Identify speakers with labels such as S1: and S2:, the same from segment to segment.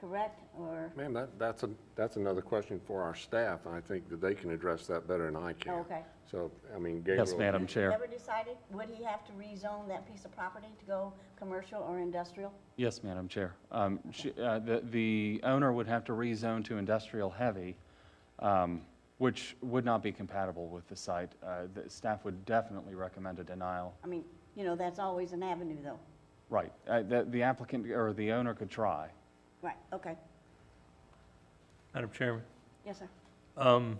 S1: correct, or,
S2: Ma'am, that, that's a, that's another question for our staff, and I think that they can address that better than I can.
S1: Oh, okay.
S2: So, I mean, Gabriel.
S3: Yes, Madam Chair.
S1: never decided, would he have to rezone that piece of property to go commercial or industrial?
S3: Yes, Madam Chair. Um, she- uh, The the owner would have to rezone to industrial heavy, um, which would not be compatible with the site. Uh, The staff would definitely recommend a denial.
S1: I mean, you know, that's always an avenue, though.
S3: Right, Uh, the the applicant, or the owner could try.
S1: Right, okay.
S4: Madam Chairman,
S1: Yes, sir.
S4: um,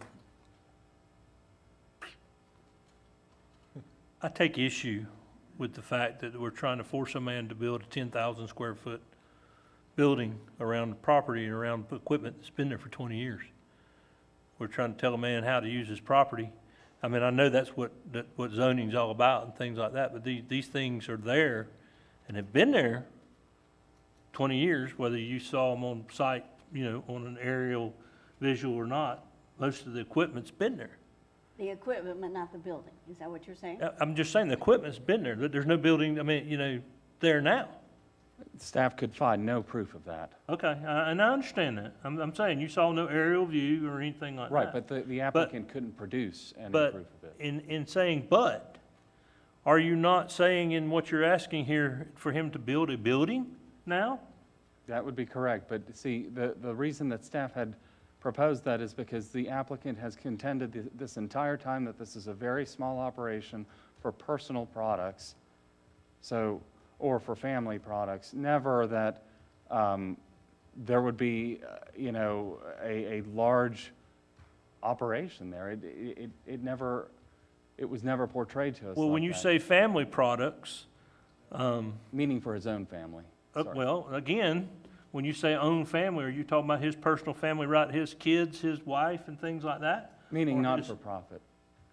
S4: I take issue with the fact that we're trying to force a man to build a ten thousand square foot building around the property and around equipment that's been there for twenty years. We're trying to tell a man how to use his property. I mean, I know that's what, that, what zoning's all about and things like that, but these, these things are there and have been there twenty years, whether you saw them on site, you know, on an aerial visual or not, most of the equipment's been there.
S1: The equipment, but not the building, is that what you're saying?
S4: I- I'm just saying, the equipment's been there, but there's no building, I mean, you know, there now.
S3: Staff could find no proof of that.
S4: Okay, I- and I understand that. I'm, I'm saying, you saw no aerial view or anything like that.
S3: Right, but the the applicant couldn't produce any proof
S4: Uh, But
S3: of it.
S4: in, in saying but, are you not saying in what you're asking here for him to build a building now?
S3: That would be correct, but see, the, the reason that staff had proposed that is because the applicant has contended thi- this entire time that this is a very small operation for personal products, so, or for family products, never that um, there would be, uh, you know, a, a large operation there. It, it, it never, it was never portrayed to us
S4: Well, when
S3: like
S4: you
S3: that.
S4: say family products,
S3: Meaning for his own family.
S4: Uh,
S3: Sorry.
S4: Well, again, when you say own family, are you talking about his personal family, right, his kids, his wife, and things like that?
S3: Meaning
S4: Or
S3: not
S4: his-
S3: for profit.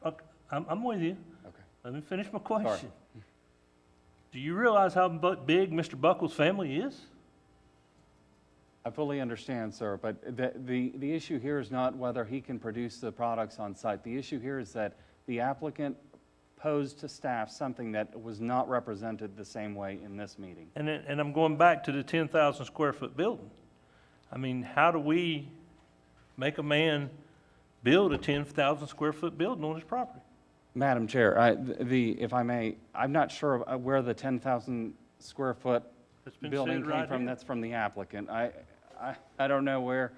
S4: Okay, I'm, I'm with you.
S3: Okay.
S4: Let me finish my question. Do you realize how bu- big Mr. Buckles' family is?
S3: I fully understand, sir, but the, the, the issue here is not whether he can produce the products on site. The issue here is that the applicant posed to staff something that was not represented the same way in this meeting.
S4: And, it- and I'm going back to the ten thousand square foot building. I mean, how do we make a man build a ten thousand square foot building on his property?
S3: Madam Chair, I, the, if I may, I'm not sure uh, where the ten thousand square foot
S4: It's been
S3: building
S4: said
S3: came
S4: right
S3: from.
S4: here.
S3: That's from the applicant. I, I, I don't know where,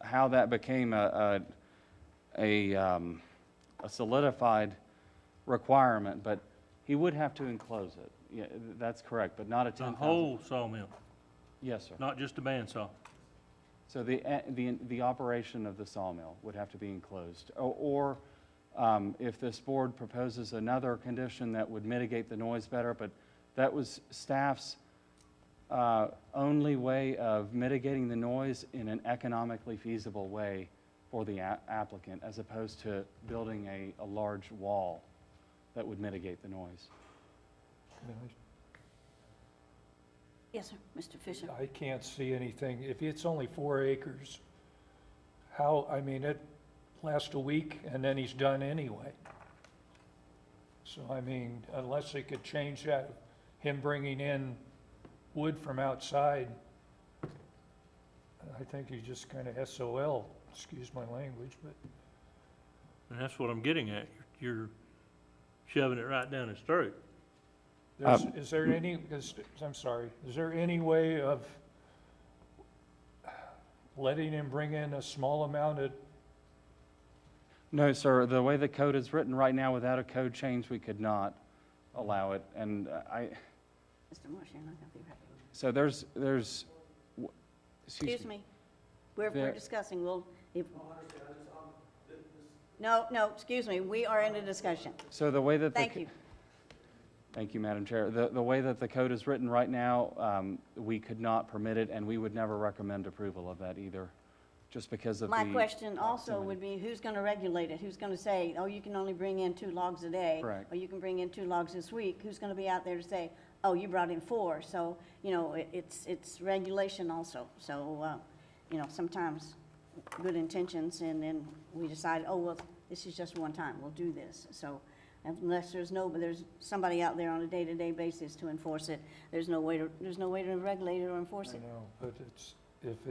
S3: how that became a, a, a, um, a solidified requirement, but he would have to enclose it. Yeah, that's correct, but not a
S4: The
S3: ten thousand.
S4: whole sawmill,
S3: Yes, sir.
S4: not just a bandsaw.
S3: So the, eh, the, the operation of the sawmill would have to be enclosed. O- Or um, if this board proposes another condition that would mitigate the noise better, but that was staff's uh, only way of mitigating the noise in an economically feasible way for the a- applicant, as opposed to building a, a large wall that would mitigate the noise.
S1: Yes, sir, Mr. Fisher.
S5: I can't see anything. If it's only four acres, how, I mean, it lasts a week and then he's done anyway. So I mean, unless they could change that, him bringing in wood from outside, I think he's just kind of SOL, excuse my language, but
S4: And that's what I'm getting at. You're you're shoving it right down his throat.
S5: There's, is there any, is, I'm sorry, is there any way of letting him bring in a small amount of,
S3: No, sir, the way the code is written right now, without a code change, we could not allow it. And uh, I,
S1: Mr. Marsh, you're not going to be ready.
S3: So there's, there's, w-
S1: Excuse
S3: excuse me.
S1: me. We're, we're
S3: There-
S1: discussing, we'll, if. No, no, excuse me, we are in a discussion.
S3: So the way that the.
S1: Thank
S3: co-
S1: you.
S3: Thank you, Madam Chair. The, the way that the code is written right now, um, we could not permit it, and we would never recommend approval of that either, just because of the.
S1: My question also
S3: proximity.
S1: would be, who's going to regulate it? Who's going to say, oh, you can only bring in two logs a day?
S3: Correct.
S1: Or you can bring in two logs this week? Who's going to be out there to say, oh, you brought in four? So, you know, it- it's, it's regulation also. So, uh, you know, sometimes good intentions, and then we decide, oh, well, this is just one time, we'll do this. So unless there's no, but there's somebody out there on a day-to-day basis to enforce it, there's no way to, there's no way to regulate it or enforce
S5: I
S1: it.
S5: don't know, but it's, if